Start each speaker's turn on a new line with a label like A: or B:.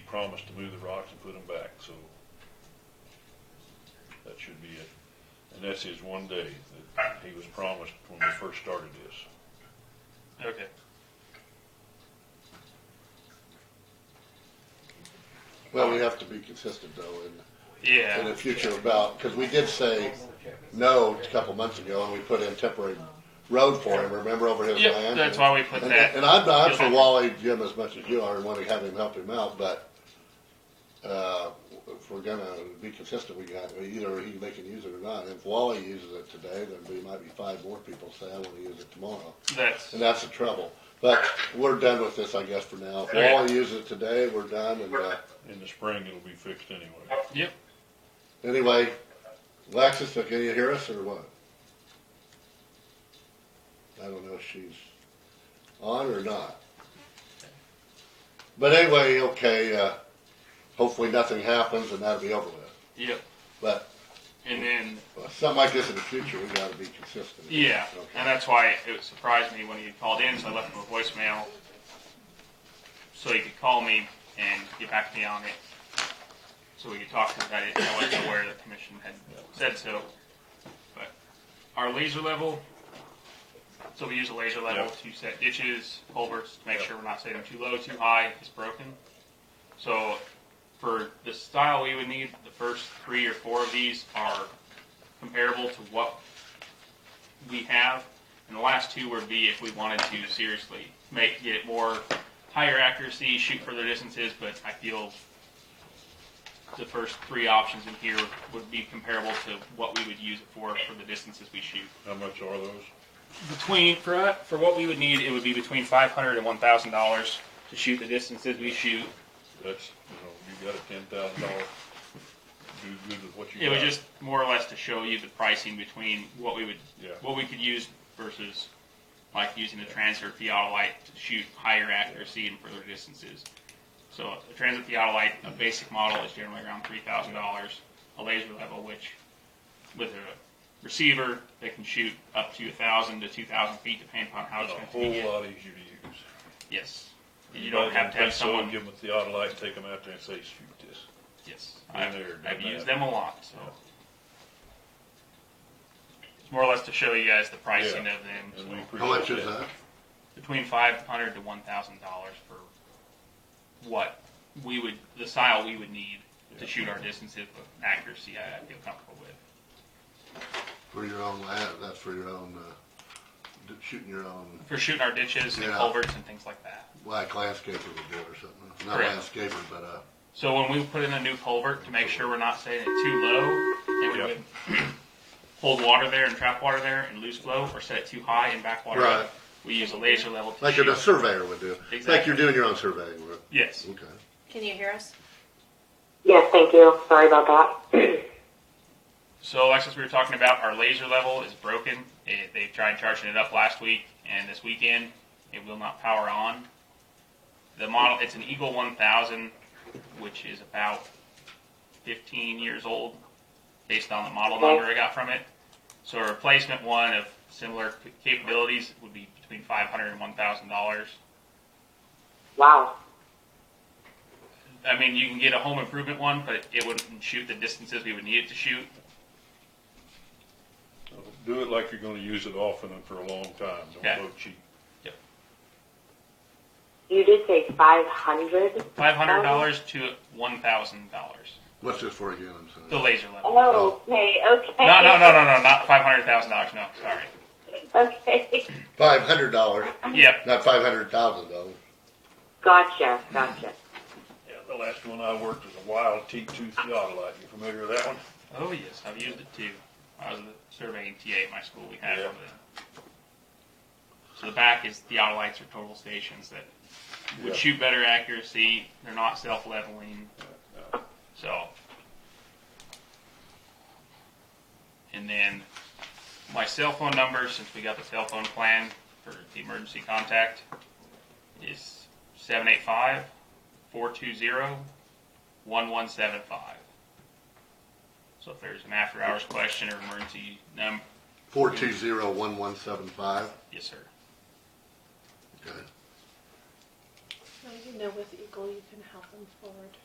A: promised to move the rocks and put them back, so that should be it. And that's his one day that he was promised when we first started this.
B: Okay.
C: Well, we have to be consistent though in, in
B: Yeah.
C: the future about, because we did say no a couple months ago and we put in temporary road for him, remember over his
B: Yep,
C: land?
B: that's why we put
C: And,
B: that.
C: and I'm not
B: You'll
C: for
B: have-
C: Wally Jim as much as you are and want to have him help him out, but, uh, if we're gonna be consistent, we got, either he, they can use it or not. If Wally uses it today, then there might be five more people say, I wanna use it tomorrow.
B: That's,
C: And that's the trouble. But we're done with this, I guess, for now. If
B: Okay.
C: Wally uses it today, we're done. And uh,
A: In the spring, it'll be fixed anyway.
B: yep.
C: anyway, Alexis, can you hear us or what? I don't know if she's on or not. But anyway, okay. Uh, hopefully nothing happens and that'll be over with.
B: Yep.
C: But
B: And then,
C: uh, something like this in the future, we got to be consistent.
B: yeah. And
C: Okay.
B: that's why it surprised me when he called in, so I left him a voicemail so he could call me and get back to me on it. So we could talk because I didn't, I wasn't aware the commission had said so. But our laser level, so we use a laser level
A: Yep.
B: to set ditches, culverts, to make
A: Yep.
B: sure we're not setting them too low, too high, it's broken. So for the style we would need, the first three or four of these are comparable to what we have. And the last two would be if we wanted to seriously make, get it more higher accuracy, shoot further distances, but I feel the first three options in here would be comparable to what we would use it for, for the distances we shoot.
A: How much are those?
B: Between, for, for what we would need, it would be between five hundred and one thousand dollars to shoot the distances we shoot.
A: That's, you know, you got a ten thousand dollar, do good with what you got.
B: It was just more or less to show you the pricing between what we would,
A: Yeah.
B: what we could use versus like using the transfer theodolite to shoot higher accuracy and further distances. So a transit theodolite, a basic model is generally around three thousand dollars, a laser level, which with a receiver, they can shoot up to a thousand to two thousand feet depending upon how
A: A
B: it's going to
A: whole
B: be.
A: lot easier to use.
B: Yes. You don't have to have
A: So,
B: someone.
A: Give them a theodolite, and take them out there and say, shoot this.
B: Yes,
A: Been
B: I've,
A: there,
B: I've
A: done
B: used
A: that.
B: them a lot, so. It's more or less to show you guys the pricing
A: Yeah.
B: of them,
A: And we
B: so
C: How much is
A: appreciate
C: that?
B: between five hundred to one thousand dollars for what we would, the style we would need
A: Yeah.
B: to shoot our distances with accuracy I I feel comfortable with.
C: For your own land? That's for your own uh, d- shooting your own
B: For shooting our ditches and
C: Yeah.
B: culverts and things like that.
C: like landscaper would do it or something. Not
B: Correct.
C: landscaper, but uh,
B: So when we put in a new culvert to make sure we're not setting it too low, and we
A: Yeah.
B: would hold water there and trap water there and loose flow, or set it too high and back water
C: Right.
B: up, we use a laser level to
C: like
B: shoot.
C: a surveyor would do. Like
B: Exactly.
C: you're doing your own surveying work.
B: Yes.
C: Okay.
D: Can you hear us?
E: Yes, thank you. Sorry about that.
B: So Alexis, we were talking about our laser level is broken. It, they tried charging it up last week and this weekend. It will not power on. The model, it's an Eagle 1000, which is about 15 years old, based on the model number I got from it. So a replacement one of similar c- capabilities would be between 500 and 1,000 dollars.
E: wow.
B: I mean, you can get a home improvement one, but it wouldn't shoot the distances we would need it to shoot.
A: it. Do it like you're gonna use it often and for a long time,
B: Yeah.
A: don't go cheap.
E: You did say 500?
B: $500 to $1,000.
C: What's this for again? I'm sorry.
B: The laser level.
E: Oh, okay, okay.
B: No, no, no, no, no, not five hundred thousand dollars. No, sorry.
E: Okay.
C: Five hundred dollars,
B: Yep.
C: not five hundred thousand dollars.
E: Gotcha, gotcha.
A: Yeah, the last one I worked was a wild T2 theodolite. You familiar with that one?
B: Oh yes, I've used it too. I was a uh, surveying TA at my school. We had
A: Yeah.
B: one of them. So the back is the outer lights or total stations that
A: Yeah.
B: would shoot better accuracy. They're not self-leveling.
A: no.
B: So. And then my cell phone number, since we got the cell phone plan for the emergency contact, is 785 420 1175. So if there's an after hours question or emergency number,
C: Four two zero one one seven five.
B: yes, sir.
C: Okay.
D: Now you know with Eagle you can help them forward.